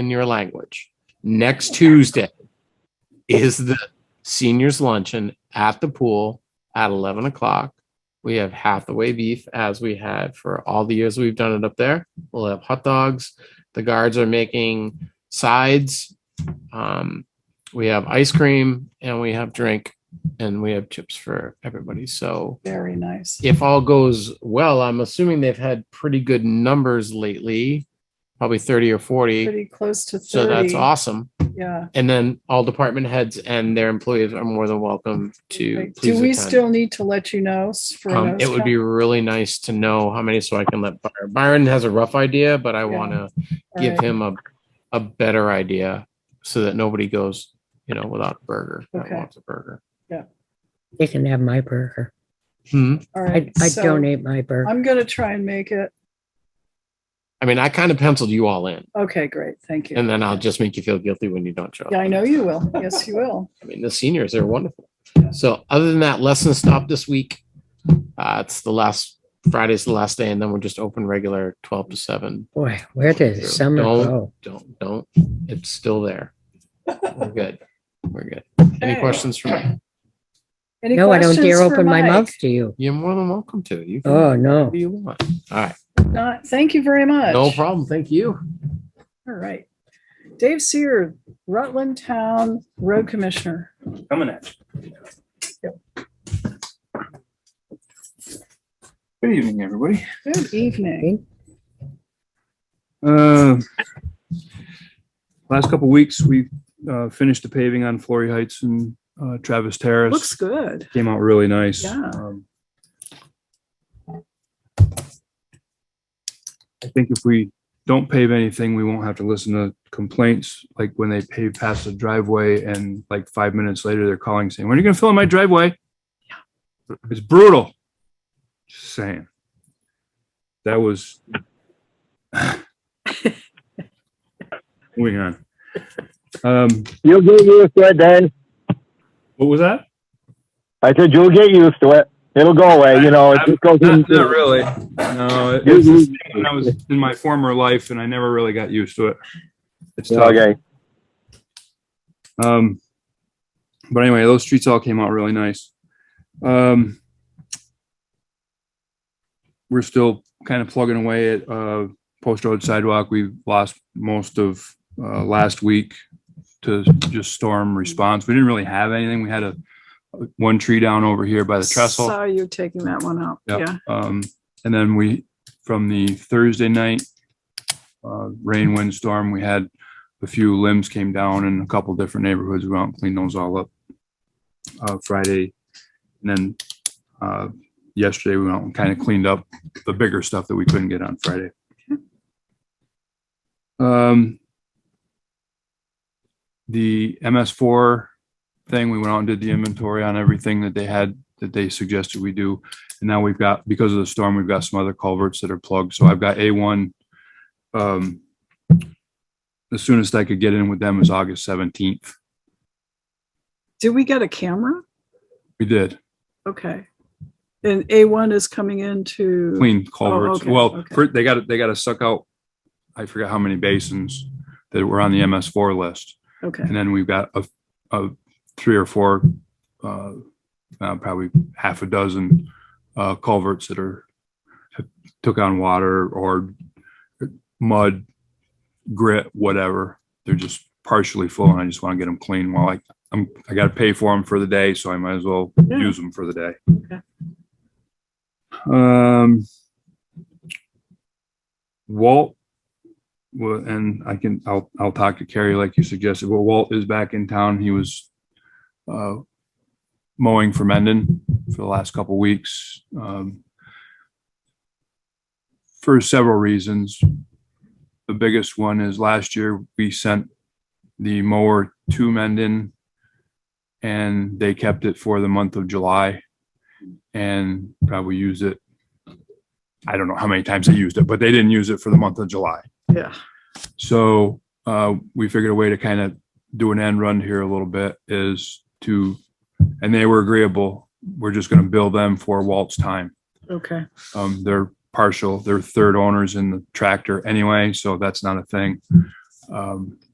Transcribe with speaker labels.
Speaker 1: in your language. Next Tuesday is the seniors luncheon at the pool at 11 o'clock. We have Hathaway beef as we had for all the years we've done it up there. We'll have hot dogs. The guards are making sides. Um, we have ice cream and we have drink and we have chips for everybody. So
Speaker 2: Very nice.
Speaker 1: if all goes well, I'm assuming they've had pretty good numbers lately, probably 30 or 40.
Speaker 2: Pretty close to thirty.
Speaker 1: So that's awesome.
Speaker 2: Yeah.
Speaker 1: And then all department heads and their employees are more than welcome to.
Speaker 2: Like, Do
Speaker 1: please
Speaker 2: we
Speaker 1: attend.
Speaker 2: still need to let you know s- for
Speaker 1: Um,
Speaker 2: nose
Speaker 1: it would be really nice to know how many, so I can let Byron, Byron has a rough idea, but I
Speaker 2: Yeah.
Speaker 1: want to
Speaker 2: count?
Speaker 1: give
Speaker 2: Alright.
Speaker 1: him a, a better idea so that nobody goes, you know, without a burger, that
Speaker 2: Okay.
Speaker 1: wants a burger.
Speaker 3: They can have my burger.
Speaker 1: Hmm.
Speaker 2: All
Speaker 3: I,
Speaker 2: right.
Speaker 3: I
Speaker 2: So
Speaker 3: donate my burger.
Speaker 2: I'm gonna try and make it.
Speaker 1: I mean, I kind of penciled you all in
Speaker 2: Okay, great. Thank you.
Speaker 1: and then I'll just make you feel guilty when you don't show up.
Speaker 2: Yeah, I know you will. Yes, you will.
Speaker 1: I mean, the seniors are wonderful. So other than that, lesson stop this week. Uh, it's the last Friday's the last day, and then we're just open regular twelve to seven.
Speaker 3: Boy, where did the summer
Speaker 1: Don't-
Speaker 3: go?
Speaker 1: Don't don't. It's still there. We're good. We're good. Any
Speaker 2: Okay.
Speaker 1: questions for me?
Speaker 2: Any
Speaker 3: No, I don't
Speaker 2: questions
Speaker 3: dare
Speaker 2: for
Speaker 3: open my
Speaker 2: Mike?
Speaker 3: mouth to you.
Speaker 1: You're more than welcome to. You can
Speaker 3: Oh,
Speaker 1: do
Speaker 3: no.
Speaker 1: whatever you want. All right.
Speaker 2: Not, thank you very much.
Speaker 1: No problem. Thank you.
Speaker 2: All right. Dave Seer, Rutland Town Road Commissioner.
Speaker 4: coming at you. Good evening, everybody.
Speaker 2: Good evening.
Speaker 4: Uh, Last couple weeks, we uh, finished the paving on Flory Heights and uh, Travis Terrace.
Speaker 2: Looks good.
Speaker 4: Came out really nice.
Speaker 2: Yeah.
Speaker 4: Um, I think if we don't pave anything, we won't have to listen to complaints, like when they pave past the driveway and like five minutes later, they're calling saying, when are you gonna fill in my driveway? It's brutal. Just saying. That was. Moving on. Um,
Speaker 5: You'll get used to it, Dan.
Speaker 4: what was that?
Speaker 5: I said you'll get used to it. It'll go away. You know, it just goes
Speaker 4: Not,
Speaker 5: into-
Speaker 4: not really. No, it-
Speaker 5: You'll
Speaker 4: it's
Speaker 5: get
Speaker 4: just
Speaker 5: used
Speaker 4: when I was in my former life, and I never really got used to it. It's
Speaker 5: to it.
Speaker 4: tough.
Speaker 5: Okay.
Speaker 4: Um, but anyway, those streets all came out really nice. Um, we're still kind of plugging away at uh, Post Road sidewalk. We lost most of uh, last week to just storm response. We didn't really have anything. We had a one tree down over here by the trestle.
Speaker 2: Saw you taking that one out.
Speaker 4: Yep.
Speaker 2: Yeah.
Speaker 4: Um, and then we, from the Thursday night, uh, rain, windstorm, we had a few limbs came down in a couple different neighborhoods. We went out and cleaned those all up, uh, Friday. And then, uh, yesterday we went out and kind of cleaned up the bigger stuff that we couldn't get on Friday. Um, the MS four thing, we went out and did the inventory on everything that they had, that they suggested we do. And now we've got, because of the storm, we've got some other culverts that are plugged. So I've got A1. um, The soonest I could get in with them is August 17th.
Speaker 2: Did we get a camera?
Speaker 4: We did
Speaker 2: Okay. And A1 is coming in to.
Speaker 4: clean culverts.
Speaker 2: Oh, okay,
Speaker 4: Well,
Speaker 2: okay.
Speaker 4: for- they got, they got to suck out, I forgot how many basins that were on the MS4 list.
Speaker 2: Okay.
Speaker 4: And then we've got a, a three or four, uh, uh, probably half a dozen, uh, culverts that are, took on water or mud, grit, whatever. They're just partially full and I just want to get them clean while I, I'm, I got to pay for them for the day, so I might as well
Speaker 2: Yeah.
Speaker 4: use them for the day.
Speaker 2: Okay.
Speaker 4: Um, Walt, well, and I can, I'll, I'll talk to Carrie like you suggested, Well, Walt is back in town. He was, uh, mowing for Mendon for the last couple weeks. Um, for several reasons. The biggest one is last year we sent the mower to Mendon and they kept it for the month of July and probably used it. I don't know how many times they used it, but they didn't use it for the month of July.
Speaker 2: Yeah.
Speaker 4: So uh, we figured a way to kind of do an end run here a little bit is to, and they were agreeable. We're just going to bill them for Walt's time.
Speaker 2: Okay.
Speaker 4: Um, they're partial, they're third owners in the tractor anyway, so that's not a thing. Um,